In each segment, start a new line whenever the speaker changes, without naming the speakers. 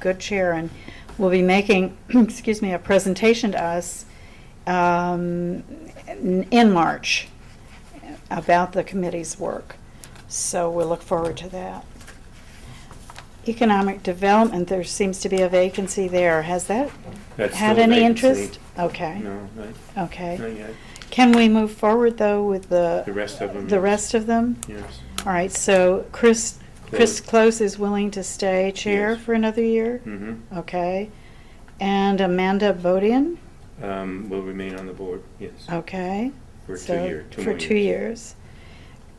good cheer and will be making, excuse me, a presentation to us um, in in March about the committee's work. So we'll look forward to that. Economic Development, there seems to be a vacancy there. Has that
That's
had
still a
any
vacancy.
interest? Okay,
No, not, not
okay.
yet.
Can we move forward, though, with the?
The rest of them
The
is-
rest of them?
Yes.
All right, so Chris, Chris
Close.
Close is willing to stay chair
Yes.
for another year?
Mm-hmm.
Okay. And Amanda Bodian?
Um, will remain on the board, yes.
Oh, Okay.
For two
So,
year- two
For
more
two years.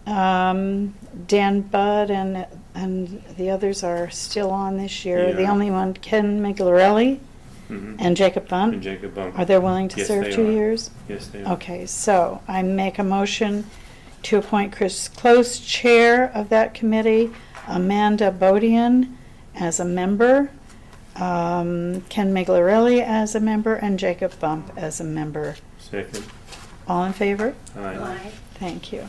years.
Um, Dan Budd and, and the others are still on this year. The
Yeah.
only one, Ken Miglarelli
Mhm.
and Jacob Bunt?
And Jacob Bump.
Are they willing to
Yes,
serve
they
two
are.
years?
Yes, they are.
Okay, so I make a motion to appoint Chris Close Chair of that committee, Amanda Bodian as a member, um, Ken Miglarelli as a member, and Jacob Bump as a member.
Second.
All in favor?
Aye.
Thank you.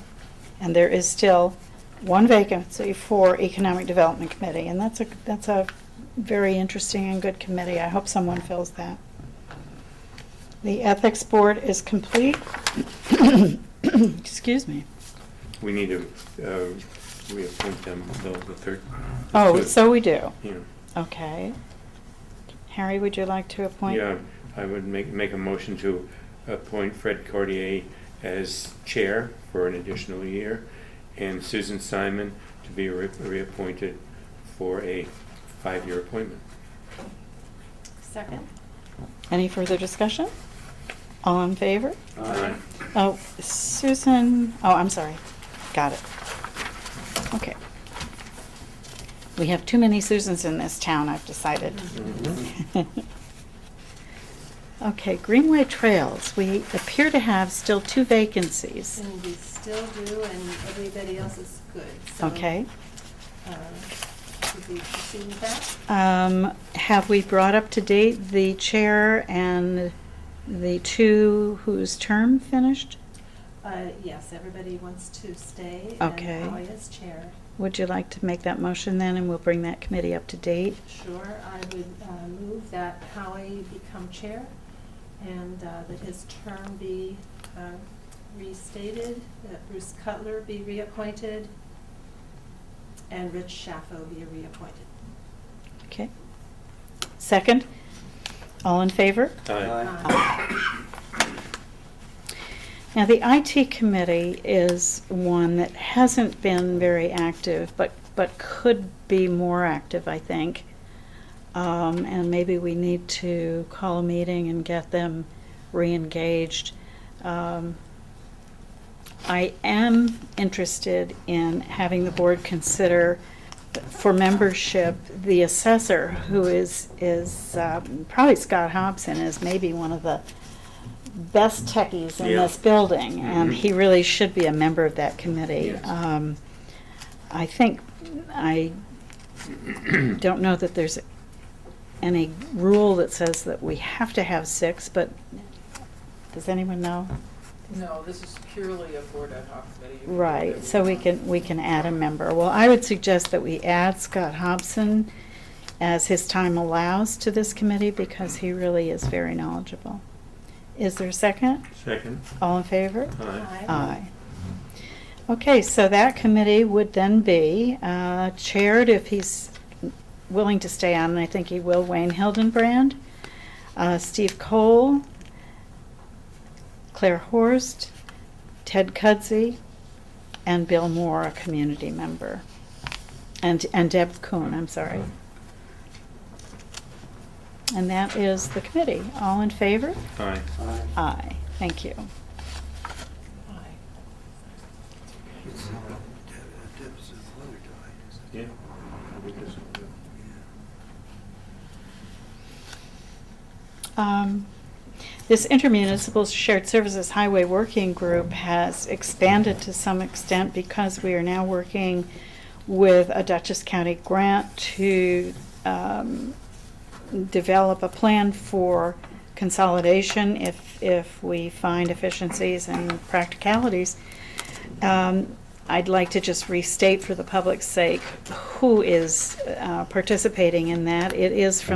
And there is still one vacancy for Economic Development Committee, and that's a, that's a very interesting and good committee. I hope someone fills that. The Ethics Board is complete. Excuse me.
We need to, uh, reappoint them, though, the third. the
Oh,
third.
so we do.
Yeah.
Okay. Harry, would you like to appoint?
Yeah, I would make, make a motion to appoint Fred Cordier as chair for an additional year, and Susan Simon to be re- reappointed for a five-year appointment.
Second?
Any further discussion? All in favor?
Aye.
Oh, Susan, oh, I'm sorry. Got it. Okay. We have too many Susans in this town, I've decided.
Mhm.
Okay, Greenway Trails, we appear to have still two vacancies.
And we still do, and everybody else is good, so.
Okay.
uh, Should we proceed with that?
Um, Have we brought up to date the chair and the two whose term finished?
Uh, Yes, everybody wants to stay.
Okay.
And Howie is chair.
Would you like to make that motion then, and we'll bring that committee up to date?
Sure, I would uh, move that Howie become chair and uh, that his term be uh, restated, that Bruce Cutler be reappointed, and Rich Shaffo be reappointed.
Okay. Second? All in favor?
Aye.
Now, the IT committee is one that hasn't been very active, but, but could be more active, I think. Um, and maybe we need to call a meeting and get them re-engaged. Um, I am interested in having the board consider for membership, the assessor, who is, is, um, probably Scott Hobson is maybe one of the best techies in
Yeah.
this building, and
Mhm.
he really should be a member of that committee.
Yes.
Um, I think, I don't know that there's any rule that says that we have to have six, but does anyone know?
No, this is purely a board ad hoc committee. You can do whatever
Right,
you
so we
want.
can, we can add a member. Well, I would suggest that we add Scott Hobson as his time allows to this committee because he really is very knowledgeable. Is there a second?
Second.
All in favor?
Aye.
Aye. Okay, so that committee would then be uh, chaired, if he's willing to stay on, and I think he will, Wayne Hildenbrand, uh, Steve Cole, Claire Horst, Ted Cudsey, and Bill Moore, a community member. And, and Deb Kuhn, I'm sorry. And that is the committee. All in favor?
Aye.
Aye. Thank you.
Aye.
Yeah.
Um, This intermunicipal shared services highway working group has expanded to some extent because we are now working with a Dutchess County grant to um, develop a plan for consolidation if, if we find efficiencies and practicalities. Um, I'd like to just restate for the public's sake who is uh, participating in that. It is from